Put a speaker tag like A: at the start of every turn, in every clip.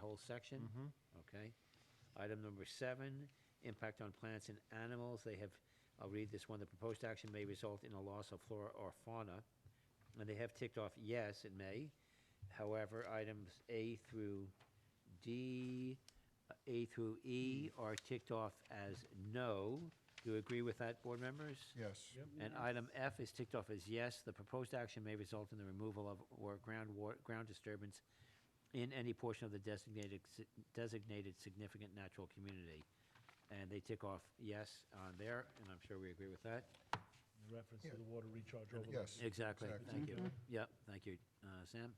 A: whole section? Okay. Item number seven, impact on plants and animals. They have, I'll read this one, the proposed action may result in a loss of flora or fauna. And they have ticked off, yes, it may. However, items A through D, uh, A through E are ticked off as no. Do you agree with that, board members?
B: Yes.
A: And item F is ticked off as yes. The proposed action may result in the removal of or ground war, ground disturbance in any portion of the designated, si- designated significant natural community. And they tick off yes on there, and I'm sure we agree with that.
C: In reference
B: Yeah.
C: to the water recharge
B: And
C: overlay.
B: Yes.
A: Exactly,
B: Exactly.
C: Mm-hmm.
A: thank you. Yep, thank you, uh, Sam.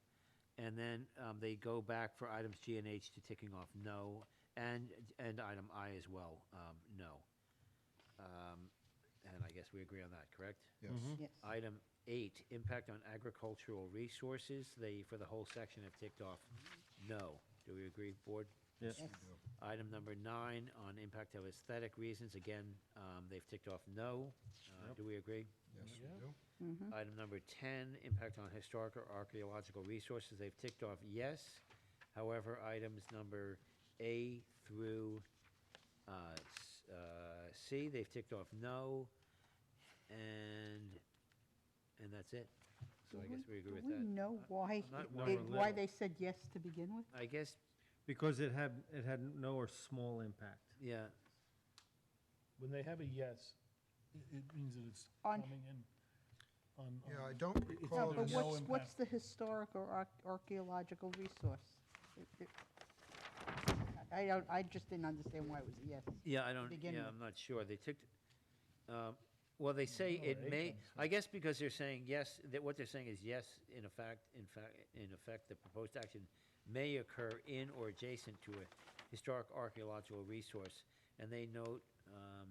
A: And then um, they go back for items G and H to ticking off no, and, and item I as well, um, no. Um, And I guess we agree on that, correct?
B: Yes.
D: Yes.
A: Item eight, impact on agricultural resources, they, for the whole section, have ticked off no. Do we agree, board?
E: Yes.
D: Yes.
A: Item number nine, on impact of aesthetic reasons, again, um, they've ticked off no. Uh, Do we agree?
B: Yes, we
C: Yeah.
B: do.
D: Mm-hmm.
A: Item number 10, impact on historic or archaeological resources, they've ticked off yes. However, items number A through uh, s- uh, C, they've ticked off no. And, and that's it. So I guess we agree with
D: Do we
A: that.
D: know
A: I'm
D: why,
A: not
D: they-
E: worried.
D: why they said yes to begin with?
A: I guess,
E: Because it had, it had no or small impact.
A: yeah,
C: When they have a yes, i- it means that it's
D: On-
C: coming in on.
B: Yeah,
C: on-
B: I don't
C: it's
B: recall
D: No,
C: either
D: but
B: this.
C: no
D: what's, what's
C: impact.
D: the historic or arch- archaeological resource? It- it- I don't, I just didn't understand why it was a yes.
A: yeah, I don't,
D: begin
A: yeah,
D: with.
A: I'm not sure. They ticked, um, well, they say
C: No,
A: it
C: A
A: may,
C: comes
A: I guess because they're saying yes, that what they're saying is yes, in effect, in fact, in effect, the proposed action may occur in or adjacent to a historic archaeological resource. And they note, um,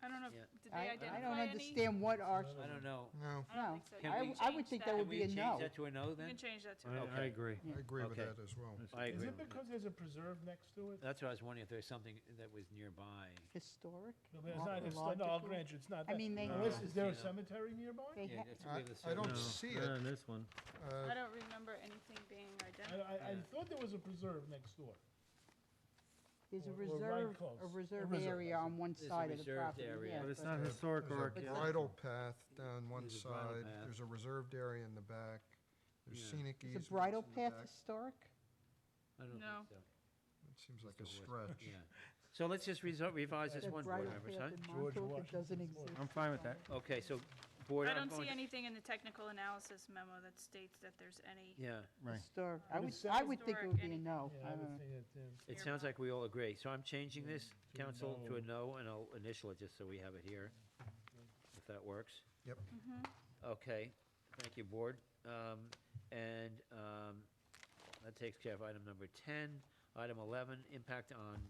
F: I don't know,
A: Yeah.
F: if- did
D: I-
F: they
D: I don't
F: identify any?
D: understand what arch,
A: I don't know.
B: No,
F: I don't
D: No.
F: think so.
A: Can
F: You
A: we
F: can
A: I
D: would
F: change
D: think that would
A: Can
D: be
A: we
D: a
A: change
D: no.
A: that to a no
F: You
A: then?
F: can change that
A: I-
F: to
A: Okay. I
E: agree.
B: I agree with
A: Okay.
B: that as well.
A: I
C: Is
A: agree.
C: it because there's a preserve next to it?
A: That's what I was wondering, if there's something that was nearby.
D: historic,
C: No, but it's not, it's not, no, I'll
D: archaeological?
C: grant you, it's not
D: I
C: that.
D: mean, they,
C: Unless, is there a
A: Yeah.
C: cemetery nearby?
D: they,
A: Yeah,
D: ha-
A: that's-
B: I-
A: we have a
B: I don't
A: certain-
B: see
E: Not
B: it.
E: on this one.
B: Uh,
F: I don't remember anything being
C: I,
F: identified.
C: I, I
A: Yeah.
C: thought there was a preserve next door.
D: there's a
C: Or- or right
D: reserve,
C: close.
D: a
C: A
D: reserve
C: reserve,
D: area
C: that's
D: on one
A: There's a
D: side of the
A: reserved
D: property,
A: area.
D: yes.
E: But it's
D: but-
E: not historic or
B: There's a
E: archaeological.
B: bridle path down one
A: There's a bridle
B: side,
A: path.
B: there's a reserved area in the back, there's
A: Yeah.
B: scenic
D: Is
B: easements
D: a bridle
B: in the
D: path
B: back.
D: historic?
A: I don't think
F: No.
A: so.
B: It seems like a
A: It's the
B: stretch.
A: Yeah. So let's just resol- revise this
D: The
A: one, board
D: bridle
A: members,
D: path
A: huh?
D: in
C: George
D: Montauk, it
C: Washington's
D: doesn't
C: Memorial.
D: exist.
E: I'm fine with that.
A: Okay, so, board,
F: I
A: I'm
F: don't see
A: going to-
F: anything in the technical analysis memo that states that there's any.
A: Yeah,
E: Right.
D: Historic,
C: Would
D: I would,
C: it
D: I
C: say-
D: would think it
F: Historic
D: would be a
F: anything.
D: no.
C: Yeah, I
D: I
C: would
D: don't know.
C: think that, yeah.
A: it
F: Here.
A: sounds like we all agree. So I'm changing this,
C: To a
A: council, to a
C: no.
A: no, and I'll initial it just so we have it here, if that works.
B: Yep.
F: Mhm.
A: Okay, thank you, board. Um, And um, that takes care of item number 10. Item 11, impact on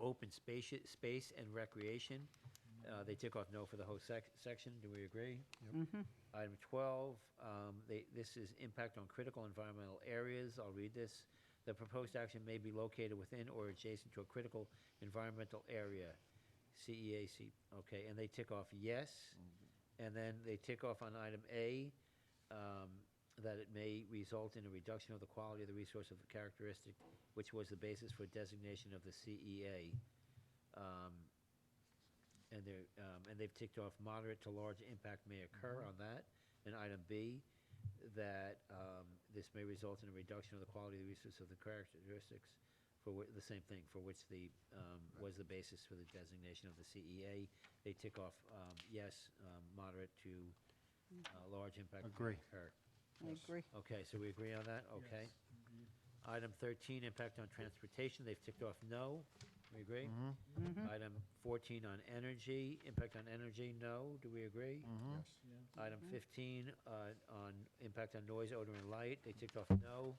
A: open space, space and recreation. Uh, They took off no for the whole sec- section, do we agree?
D: Mm-hmm.
A: Item 12, um, they- this is impact on critical environmental areas. I'll read this. The proposed action may be located within or adjacent to a critical environmental area, CEAC. Okay, and they tick off yes. And then they tick off on item A, um, that it may result in a reduction of the quality of the resource of the characteristic, which was the basis for designation of the CEA. Um, and they're, um, and they've ticked off moderate to large impact may occur on that. And item B, that, um, this may result in a reduction of the quality of the resource of the characteristics for whi- the same thing, for which the, um, was the basis for the designation of the CEA. They tick off, um, yes, um, moderate to, uh, large impact may
E: Agree.
A: occur.
D: I agree.
A: Okay, so we agree on
C: uh,
A: that, okay. Item thirteen, impact on transportation, they've ticked off no, we agree?
D: Mm-hmm.
A: Item fourteen on energy, impact on energy, no, do we agree?
E: Mm-hmm.
B: Yes.
D: Mm-hmm.
A: Item fifteen, uh, on impact on noise, odor, and light, they ticked off no,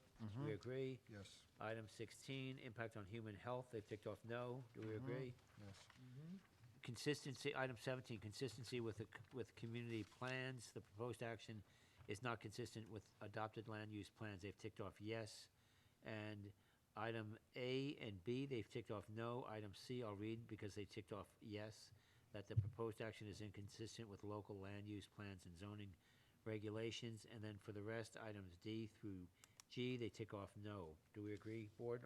A: we agree?
B: Yes.
A: Item sixteen, impact on human health, they've ticked off no, do we agree?
B: Yes.
A: Consistency, item seventeen, consistency with, the c- with community plans, the proposed action is not consistent with adopted land use plans, they've ticked off yes. And item A and B, they've ticked off no, item C, I'll read because they ticked off yes, that the proposed action is inconsistent with local land use plans and zoning regulations, and then for the rest, items D through G, they tick off no. Do we agree, board?